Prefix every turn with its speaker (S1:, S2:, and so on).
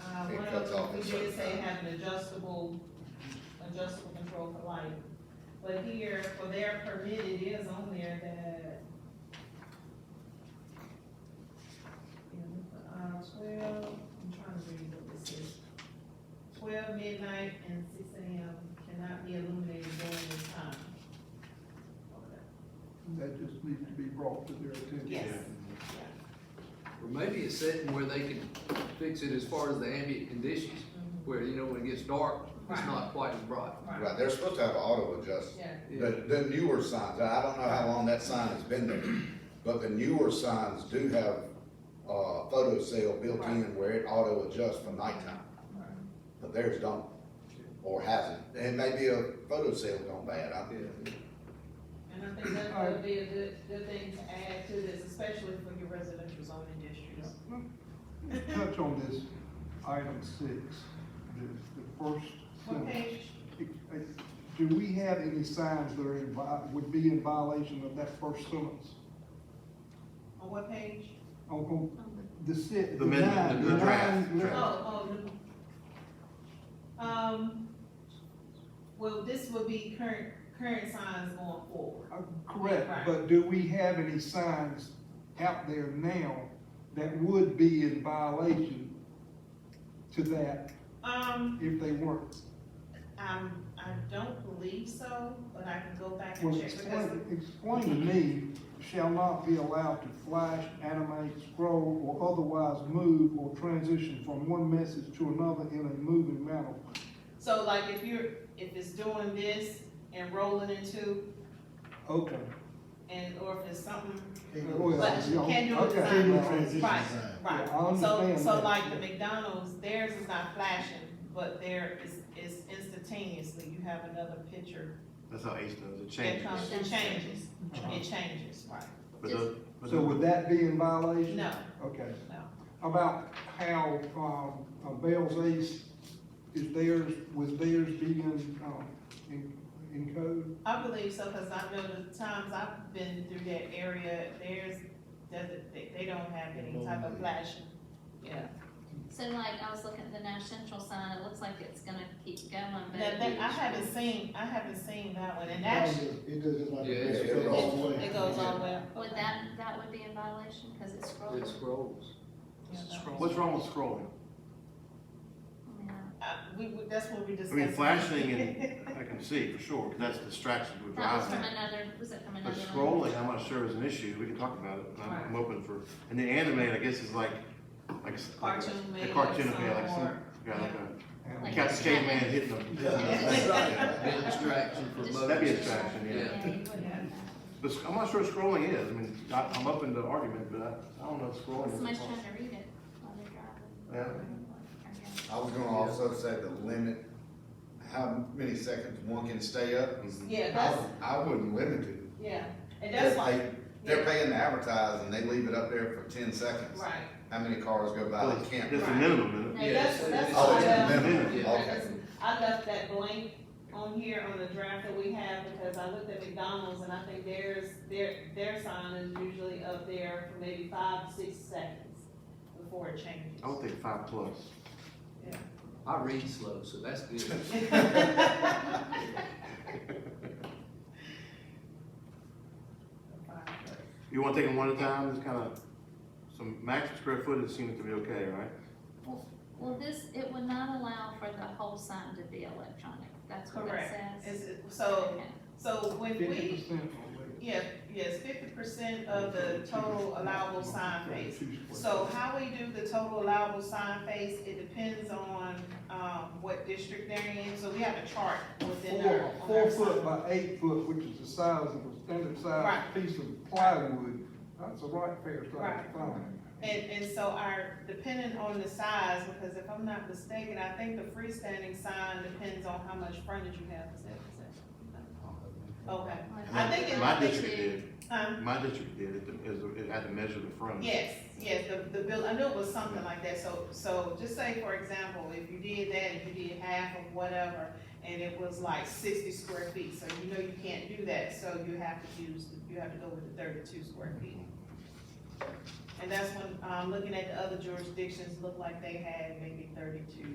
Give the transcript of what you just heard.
S1: Uh, We did say have an adjustable, adjustable control for light. But here, for their permit, it is on there that. Yeah, we put, Uh, twelve, I'm trying to read what this is. Twelve midnight and six AM cannot be illuminated during this time.
S2: That just needs to be brought to their attention.
S1: Yes,
S3: Or maybe it's setting where they can fix it as far as the ambient conditions, where, you know, when it gets dark, it's
S1: Right.
S3: not quite as bright.
S1: Mm-hmm. right,
S4: Right, they're supposed to have auto adjust,
S1: yeah,
S4: the, the newer signs, I don't know how long that sign has been there, but the newer signs do have, uh, photo cell built in where it auto adjusts for nighttime,
S1: right.
S4: but theirs don't, or hasn't, and maybe a photo cell gone bad, I,
S3: Yeah.
S1: And I think that would be a good, good thing to add to this, especially for your residential zoning districts.
S2: Touch on this item six, the, the first
S1: What
S2: sentence.
S1: page?
S2: Do we have any signs that are in, vi- would be in violation of that first sentence?
S1: On what page?
S2: On, on the six,
S5: The
S2: the
S5: amendment,
S2: nine,
S5: the
S2: the
S5: draft,
S2: nine,
S5: draft.
S1: Oh, oh, no. Um, well, this would be current, current signs going forward.
S2: uh, correct,
S1: Right.
S2: but do we have any signs out there now that would be in violation to that
S1: Um,
S2: if they weren't?
S1: I'm, I don't believe so, but I can go back
S2: Well,
S1: and check because,
S2: explain, explain to me, shall not be allowed to flash, animate, scroll, or otherwise move or transition from one message to another in a moving manner.
S1: so like if you're, if it's doing this and rolling into,
S2: Okay.
S1: and, or if it's something
S2: Well,
S1: But you
S2: yeah,
S1: can do a
S2: okay.
S1: design.
S2: Yeah, okay.
S1: Right, right,
S2: Yeah, I
S1: so,
S2: understand
S1: so
S2: that.
S1: like the McDonald's, theirs is not flashing, but there is, is instantaneously, you have another picture
S5: That's how Ace does it,
S1: that
S5: changes.
S1: comes, it changes,
S2: Uh-huh.
S1: it changes, right?
S5: But the, but
S2: So would
S5: the,
S2: that be in violation?
S1: No,
S2: Okay.
S1: no,
S2: About how, um, uh, Bell's Ace is theirs, was theirs being, um, in, in code?
S1: I believe so, cause I know the times I've been through that area, theirs doesn't, they, they don't have any type of flashing, yeah.
S6: So like, I was looking at the Nash Central sign, it looks like it's gonna keep going, but.
S1: That, that, I haven't seen, I haven't seen that one, and actually,
S7: It does just like.
S3: Yeah,
S4: it
S7: it goes
S4: goes
S7: all the way.
S1: it goes all the way.
S6: Would that, that would be in violation, cause it's scrolling.
S3: It scrolls.
S1: Yeah, that one.
S5: what's wrong with scrolling?
S6: Yeah.
S1: Uh, we, we- that's what we
S5: I
S1: discussed.
S5: mean, flashing and, I can see for sure, 'cause that's distraction to a
S6: That was from
S5: driver.
S6: another, was it from
S5: But
S6: another? one?
S5: scrolling, I'm not sure is an issue, we can talk about it, I'm, I'm open for, and the anime, I guess, is like, like. a s- like a-
S1: Cartoon
S5: A
S1: made
S5: cartoon
S1: of
S5: made, like
S1: some
S5: some,
S1: or-
S5: yeah, like a,
S6: Like
S5: cat,
S6: a
S5: caveman
S6: cat.
S5: hitting them.
S3: Bit distraction for
S6: Just-
S3: most.
S5: That'd be a distraction, yeah.
S6: Yeah, you wouldn't
S1: Yeah.
S6: want that.
S5: But sc- I'm not sure scrolling is, I mean, I, I'm open to argument, but I, I don't know if scrolling is.
S6: Somebody's trying to read it while they're
S5: Yeah.
S6: driving. Okay.
S4: I was gonna also say the limit, how many seconds one can stay up,
S5: Mhm.
S1: Yeah,
S4: I,
S1: that's,
S4: I wouldn't limit it.
S1: yeah, and that's
S4: If
S1: why,
S4: they, they're
S1: yeah,
S4: paying to advertise and they leave it up there for ten seconds,
S1: right.
S4: how many cars go by
S5: Well,
S4: that can't?
S5: That's the
S1: Right.
S5: minimum, isn't it?
S6: No,
S1: Yeah,
S6: that's-
S1: that's- that's
S4: Oh, it's
S1: why,
S4: a
S1: uh,
S4: minimum,
S3: Yeah.
S4: okay.
S1: I left that blank on here on the draft that we have, because I looked at McDonald's, and I think theirs, their, their sign is usually up there for maybe five, six seconds before it changes.
S5: I would think five plus.
S3: I read slow, so that's good.
S5: You wanna take them one at a time, just kinda, some max square footage seems to be okay, right?
S6: Well, this, it would not allow for the whole sign to be electronic, that's what it
S1: Correct.
S6: says.
S1: Is it, so,
S6: Okay.
S1: so when
S2: Fifty
S1: we,
S2: percent.
S1: yeah, yes, fifty percent of the total allowable sign base. So how we do the total allowable sign face, it depends on, um, what district they're in, so we have a chart within our.
S2: Four,
S1: on
S2: four
S1: our
S2: foot
S1: sign.
S2: by eight foot, which is the size of a standard size
S1: Right.
S2: piece of plywood, that's a right fair size
S1: Right.
S2: sign.
S1: And, and so our, depending on the size, because if I'm not mistaken, I think the freestanding sign depends on how much frontage you have, is that, is that? Okay, I think it-
S5: My
S6: I think
S5: district
S6: it-
S5: did,
S1: um,
S5: my district did, it, is, it had to measure the front.
S1: yes, yes, the, the bill, I knew it was something like that, so, so just say, for example, if you did that, if you did half of whatever, and it was like sixty square feet, so you know you can't do that, so you have to use, you have to go with the thirty-two square feet. And that's when, um, looking at the other jurisdictions, looked like they had maybe thirty-two